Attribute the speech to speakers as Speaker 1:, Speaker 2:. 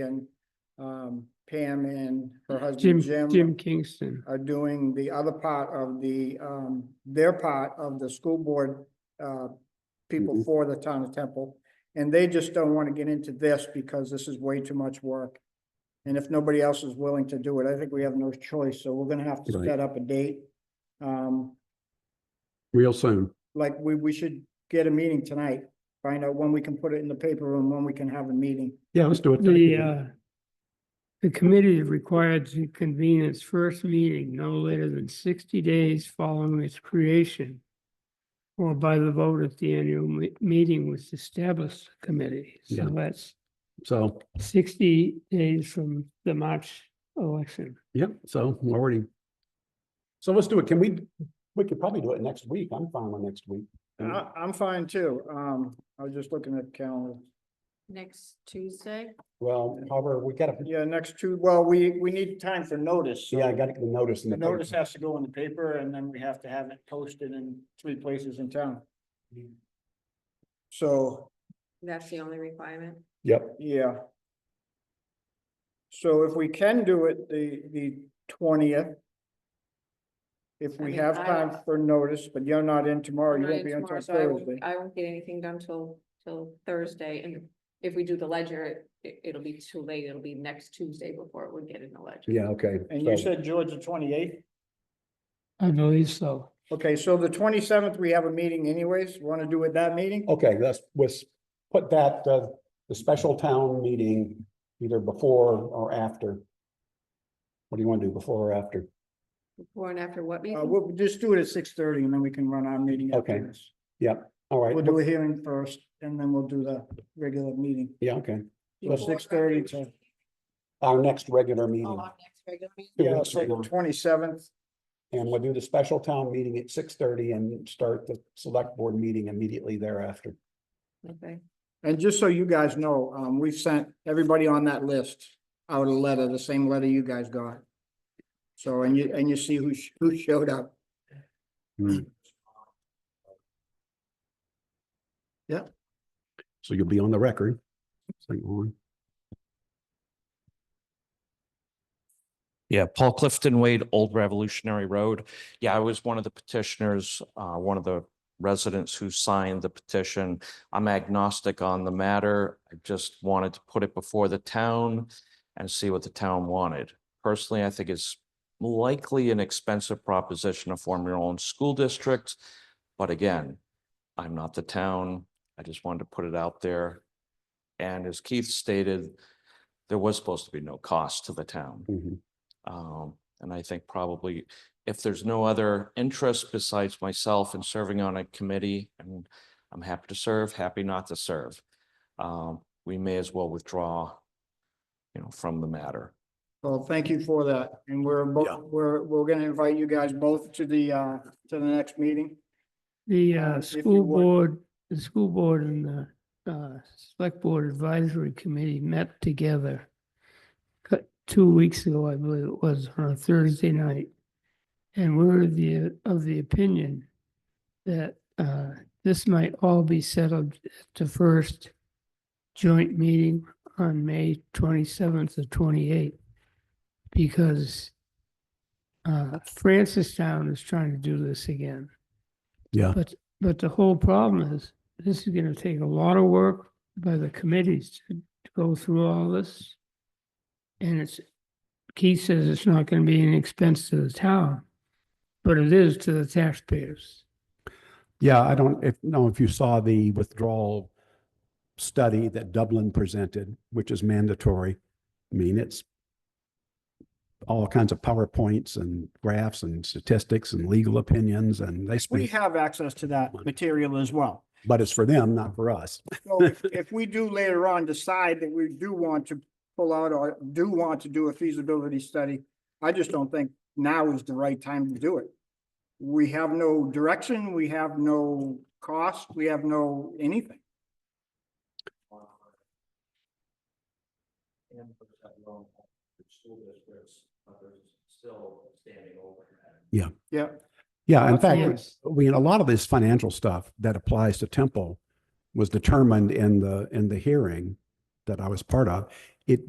Speaker 1: and um, Pam and her
Speaker 2: Jim,
Speaker 1: husband
Speaker 2: Jim Kingston.
Speaker 1: are doing the other part of the, um, their part of the school board, uh, people
Speaker 2: Mm-hmm.
Speaker 3: Mhm.
Speaker 1: for the town of Temple. And they just don't want to get into this because this is way too much work. And if nobody else is willing to do it, I think we have no choice. So we're gonna have to
Speaker 3: Right.
Speaker 1: set up a date. Um,
Speaker 3: real soon.
Speaker 1: like we, we should get a meeting tonight, find out when we can put it in the paper and when we can have a meeting.
Speaker 3: Yeah, let's do it.
Speaker 2: The, uh, the committee is required to convene its first meeting no later than sixty days following its creation or by the vote at the annual me- meeting which established the committee.
Speaker 3: Yeah.
Speaker 2: So that's
Speaker 3: So,
Speaker 2: sixty days from the March election.
Speaker 3: yep, so we're already. So let's do it. Can we, we could probably do it next week. I'm fine with next week.
Speaker 1: I, I'm fine too. Um, I was just looking at the calendar.
Speaker 4: Next Tuesday?
Speaker 3: Well, however, we gotta,
Speaker 1: Yeah, next two, well, we, we need time for notice. so
Speaker 3: yeah, I gotta get the notice in
Speaker 1: The
Speaker 3: the.
Speaker 1: notice
Speaker 3: paper.
Speaker 1: has to go in the paper and then we have to have it posted in three places in town. So,
Speaker 4: That's the only requirement.
Speaker 3: Yep,
Speaker 1: yeah. So if we can do it the, the twentieth. If
Speaker 4: I
Speaker 1: we
Speaker 4: mean,
Speaker 1: have
Speaker 4: I-
Speaker 1: time for notice, but you're not in tomorrow, Oh, you won't be in
Speaker 4: Tomorrow,
Speaker 1: until
Speaker 4: so I won't-
Speaker 1: Thursday.
Speaker 4: I won't get anything done till, till Thursday, and if we do the ledger, it, it'll be too late, it'll be next Tuesday before it would get in the ledger.
Speaker 3: yeah, okay.
Speaker 1: And you
Speaker 3: So,
Speaker 1: said George the twenty-eighth?
Speaker 2: I believe so.
Speaker 1: Okay, so the twenty-seventh, we have a meeting anyways. Want to do it that meeting?
Speaker 3: Okay, let's, let's put that, uh, the special town meeting either before or after. What do you want to do, before or after?
Speaker 4: Before and after what
Speaker 1: Uh,
Speaker 4: meeting?
Speaker 1: we'll just do it at six thirty and then we can run our meeting
Speaker 3: Okay.
Speaker 1: after this.
Speaker 3: All right,
Speaker 1: We'll do a hearing first and then we'll do the regular meeting.
Speaker 3: yeah, okay.
Speaker 1: So
Speaker 4: Before
Speaker 1: six thirty to,
Speaker 4: regular-
Speaker 3: Our next regular
Speaker 4: Oh,
Speaker 3: meeting.
Speaker 4: our next regular meeting?
Speaker 3: Yeah,
Speaker 1: yeah,
Speaker 3: that's right.
Speaker 1: twenty seventh.
Speaker 3: And we'll do the special town meeting at six thirty and start the select board meeting immediately thereafter.
Speaker 4: Okay,
Speaker 1: And just so you guys know, um, we've sent everybody on that list out a letter, the same letter you guys got. So, and you, and you see who, sh- who showed up.
Speaker 3: So you'll be on the record. St. Lawrence.
Speaker 5: Yeah, Paul Clifton Wade, Old Revolutionary Road. Yeah, I was one of the petitioners, uh, one of the residents who signed the petition. I'm agnostic on the matter. I just wanted to put it before the town and see what the town wanted. Personally, I think it's likely an expensive proposition to form your own school district. But again, I'm not the town. I just wanted to put it out there. And as Keith stated, there was supposed to be no cost to the town.
Speaker 3: Mhm.
Speaker 5: Um, and I think probably if there's no other interest besides myself in serving on a committee, and I'm happy to serve, happy not to serve. Um, we may as well withdraw, you know, from the matter.
Speaker 1: Well, thank you for that. And we're,
Speaker 3: Yeah.
Speaker 1: both we're, we're gonna invite you guys both to the, uh, to the next meeting.
Speaker 2: The
Speaker 1: Um,
Speaker 2: uh,
Speaker 1: if you
Speaker 2: school
Speaker 1: would.
Speaker 2: board, the school board and the uh, select board advisory committee met together cu- two weeks ago, I believe it was, on a Thursday night. And we were the, of the opinion that uh, this might all be settled at the first joint meeting on May twenty-seventh or twenty-eighth. Because uh, Francistown is trying to do this again.
Speaker 3: Yeah.
Speaker 2: But, but the whole problem is, this is gonna take a lot of work by the committees to to go through all this. And it's, Keith says it's not gonna be an expense to the town, but it is to the taxpayers.
Speaker 3: Yeah, I don't, if, no, if you saw the withdrawal study that Dublin presented, which is mandatory, I mean, it's all kinds of PowerPoints and graphs and statistics and legal opinions and they
Speaker 1: We
Speaker 3: speak,
Speaker 1: have access to that material as well.
Speaker 3: but it's for them, not for us.
Speaker 1: So if, if we do later on decide that we do want to pull out or do want to do a feasibility study, I just don't think now is the right time to do it. We have no direction, we have no cost, we have no anything.
Speaker 5: And for the loan, school districts, others still standing over.
Speaker 1: Yeah,
Speaker 3: Yeah, in fact,
Speaker 2: Yes.
Speaker 3: we, a lot of this financial stuff that applies to Temple was determined in the, in the hearing that I was part of. It